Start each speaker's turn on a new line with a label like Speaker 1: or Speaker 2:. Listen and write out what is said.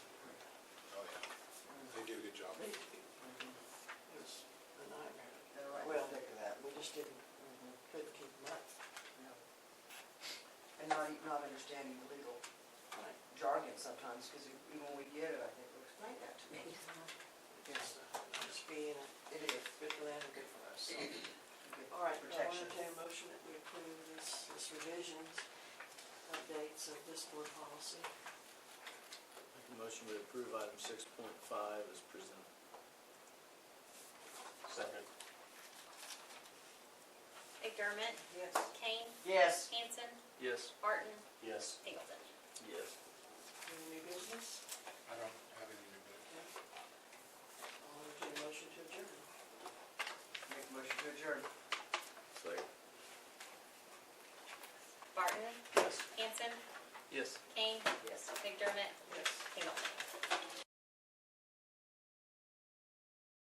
Speaker 1: e, understanding the legal jargon sometimes, because even when we get it, I think, "Well, explain that to me. It's,
Speaker 2: Just uh, being
Speaker 1: it is.
Speaker 2: good for them and good for us. so.
Speaker 1: good
Speaker 2: All right, well, I
Speaker 1: Protection.
Speaker 2: entertain a motion that we approve this, this revisions, updates of this board policy.
Speaker 3: Make a motion to approve item six point five as presented.
Speaker 4: Second.
Speaker 5: McDermott,
Speaker 1: Yes.
Speaker 5: Kane,
Speaker 1: Yes.
Speaker 5: Hanson,
Speaker 3: Yes.
Speaker 5: Barton,
Speaker 4: Yes.
Speaker 5: Singleton.
Speaker 3: Yes.
Speaker 2: Any new business?
Speaker 6: I don't have any new business.
Speaker 2: Okay. I'll entertain a motion to adjourn.
Speaker 1: Make a motion to adjourn.
Speaker 3: Second.
Speaker 5: Barton,
Speaker 3: Yes.
Speaker 5: Hanson,
Speaker 3: Yes.
Speaker 5: Kane,
Speaker 1: Yes.
Speaker 5: McDermott,